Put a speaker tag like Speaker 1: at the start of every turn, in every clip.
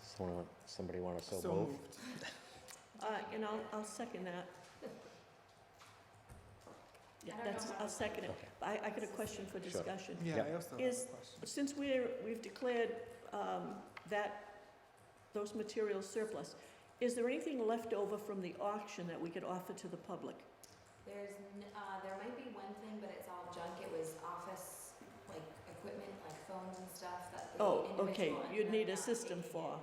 Speaker 1: Someone, want- somebody want to so
Speaker 2: So
Speaker 1: move?
Speaker 2: moved.
Speaker 3: Uh, and I'll, I'll second that. Yeah,
Speaker 4: I don't
Speaker 3: that's,
Speaker 4: know how
Speaker 3: I'll
Speaker 4: to-
Speaker 3: second it.
Speaker 1: Okay.
Speaker 3: I, I got a question for
Speaker 1: Sure.
Speaker 3: discussion.
Speaker 2: Yeah,
Speaker 1: Yep.
Speaker 2: I also have
Speaker 3: Is-
Speaker 2: a question.
Speaker 3: Since we're, we've declared, um, that, those materials surplus, is there anything left over from the auction that we could offer to the public?
Speaker 4: There's, n- uh, there might be one thing, but it's all junk. It was office, like, equipment, like phones and stuff that the
Speaker 3: Oh,
Speaker 4: individual.
Speaker 3: okay,
Speaker 4: ended
Speaker 3: you'd
Speaker 4: up
Speaker 3: need a
Speaker 4: not
Speaker 3: system
Speaker 4: taking
Speaker 3: for,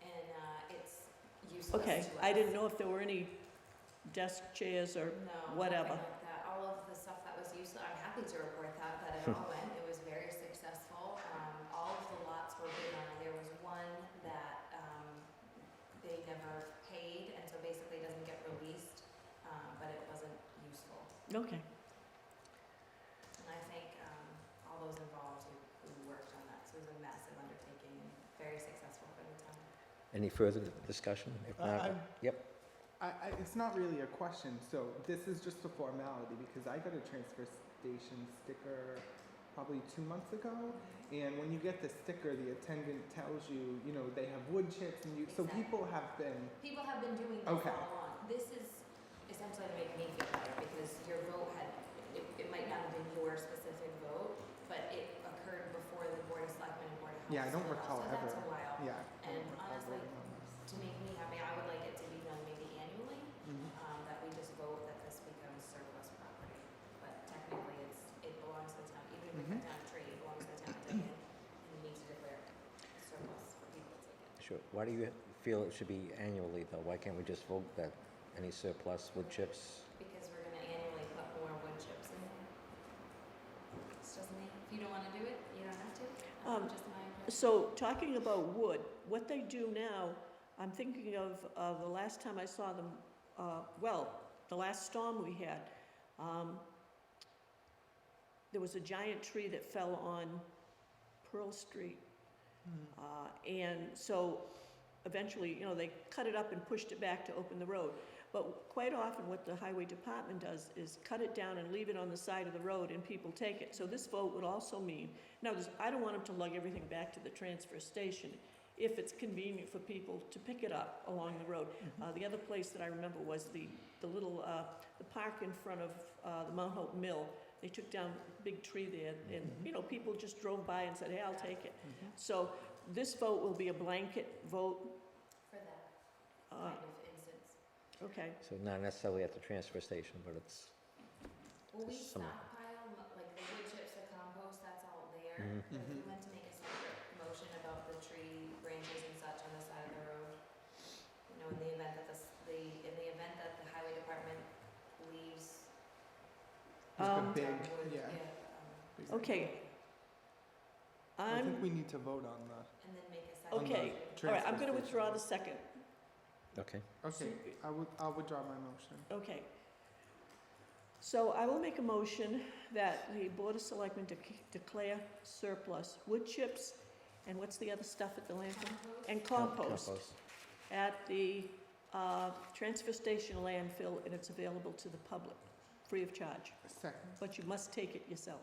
Speaker 4: it, And, uh, it's useless
Speaker 3: okay,
Speaker 4: to
Speaker 3: I
Speaker 4: us.
Speaker 3: didn't know if there were any desk chairs or,
Speaker 4: No,
Speaker 3: whatever.
Speaker 4: nothing like that. All of the stuff that was useless, I'm happy to report that, that it all went, it was very successful. Um, all of the lots were bid on, there was one that, um, they never paid, and so basically doesn't get released, um, but it wasn't useful.
Speaker 3: okay,
Speaker 4: And I thank, um, all those involved who, who worked on that, so it was a massive undertaking and very successful for the town.
Speaker 1: Any further discussion? If
Speaker 2: I-
Speaker 1: not,
Speaker 2: Uh, I'm-
Speaker 1: yep.
Speaker 2: I, I, it's not really a question, so this is just a formality because I got a transfer station sticker probably two months ago. And when you get the sticker, the attendant tells you, you know, they have wood chips and you, so
Speaker 4: Exactly.
Speaker 2: people have been,
Speaker 4: People have been doing this all
Speaker 2: Okay.
Speaker 4: along. This is essentially to make me feel better because your vote had, it, it might not have been your specific vote, but it occurred before the Board of Selectmen and Board of Health.
Speaker 2: Yeah, I don't
Speaker 4: split off,
Speaker 2: recall
Speaker 4: So that's
Speaker 2: ever.
Speaker 4: a while.
Speaker 2: yeah. I
Speaker 4: And
Speaker 2: don't recall
Speaker 4: honestly,
Speaker 2: voting on this.
Speaker 4: to make me happy, I would like it to be done maybe annually,
Speaker 2: Mhm.
Speaker 4: um, that we just vote that this becomes surplus property. But technically, it's, it belongs to the town, even if we cut
Speaker 2: Mhm.
Speaker 4: down a tree, it belongs to the town of Dayton. And we need to declare it surplus for people to take it.
Speaker 1: Sure. Why do you feel it should be annually, though? Why can't we just vote that any surplus wood chips?
Speaker 4: because we're gonna annually put more wood chips in there. This doesn't mean, if you don't wanna do it, you don't have to, um,
Speaker 3: Um,
Speaker 4: just my.
Speaker 3: So, talking about wood, what they do now, I'm thinking of, uh, the last time I saw them, uh, well, the last storm we had, um, there was a giant tree that fell on Pearl Street. Uh, and so eventually, you know, they cut it up and pushed it back to open the road. But quite often, what the highway department does is cut it down and leave it on the side of the road and people take it. So this vote would also mean, now, this- I don't want them to lug everything back to the transfer station if it's convenient for people to pick it up along the road.
Speaker 2: Mm-hmm.
Speaker 3: Uh, the other place that I remember was the, the little, uh, the park in front of, uh, the Mount Hope Mill. They took down a big tree there and, you know, people just drove by and said, hey, I'll take it.
Speaker 2: Mhm.
Speaker 3: So this vote will be a blanket vote,
Speaker 4: For that
Speaker 3: uh,
Speaker 4: kind of instance.
Speaker 3: okay,
Speaker 1: So not necessarily at the transfer station, but it's,
Speaker 4: Well, we
Speaker 1: Some-
Speaker 4: stockpile, mo- like the wood chips, the compost, that's all
Speaker 1: Mhm.
Speaker 4: there.
Speaker 3: Mm-hmm.
Speaker 4: But If we
Speaker 2: Mhm.
Speaker 4: went to make a separate motion about the tree branches and such on the side of the road, you know, in the event that this, the, in the event that the highway department leaves.
Speaker 2: Like a
Speaker 3: Um,
Speaker 2: big,
Speaker 4: down wood,
Speaker 2: yeah.
Speaker 4: um,
Speaker 2: big-
Speaker 3: okay.
Speaker 2: I think
Speaker 3: I'm,
Speaker 2: we need to vote on the,
Speaker 4: And then make a second.
Speaker 3: okay,
Speaker 4: motion.
Speaker 3: all right, I'm
Speaker 2: transfer
Speaker 3: gonna withdraw
Speaker 2: station.
Speaker 3: the second,
Speaker 1: okay.
Speaker 2: okay, I would, I'll withdraw my motion.
Speaker 3: okay. So I will make a motion that the Board of Selectmen dec- declare surplus wood chips, and what's the other stuff at the landfill?
Speaker 4: Compost?
Speaker 3: And compost at the, uh, transfer station landfill, and it's available to the public, free of charge.
Speaker 2: Second,
Speaker 3: But you must take it yourself.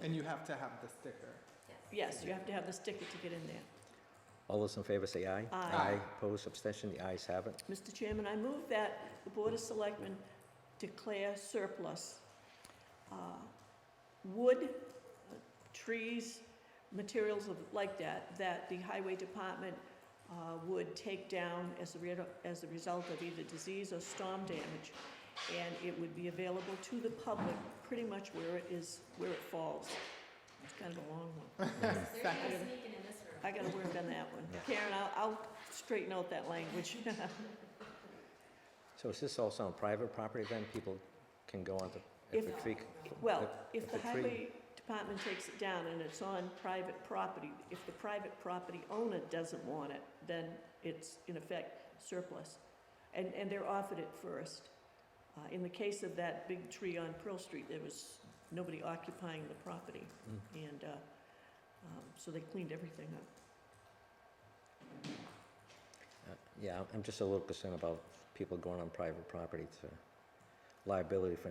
Speaker 2: and you have to have the sticker.
Speaker 3: Yes, you have to have the sticker to get in there.
Speaker 1: All those in favor say aye.
Speaker 3: Aye.
Speaker 1: Opposed, abstention, the ayes have it.
Speaker 3: Mr. Chairman, I move that the Board of Selectmen declare surplus uh, wood, uh, trees, materials of, like that, that the Highway Department uh, would take down as a, re- as a result of either disease or storm damage. And it would be available to the public pretty much where it is, where it falls. It's kind of a long one.
Speaker 4: There's no
Speaker 2: Second.
Speaker 4: sneaking in this room.
Speaker 3: I gotta work on that one.
Speaker 1: Yeah.
Speaker 3: Karen, I'll, I'll straighten out that language.
Speaker 1: So is this also on private property then? People can go on to, if
Speaker 3: If-
Speaker 1: a tree.
Speaker 3: Well, if the
Speaker 1: a tree-
Speaker 3: highway department takes it down and it's on private property, if the private property owner doesn't want it, then it's in effect surplus. And, and they're offered it first. Uh, in the case of that big tree on Pearl Street, there was nobody occupying the property.
Speaker 1: Mm.
Speaker 3: And, uh, um, so they cleaned everything up.
Speaker 1: Uh, Yeah, I'm- I'm just a little concerned about people going on private property to liability for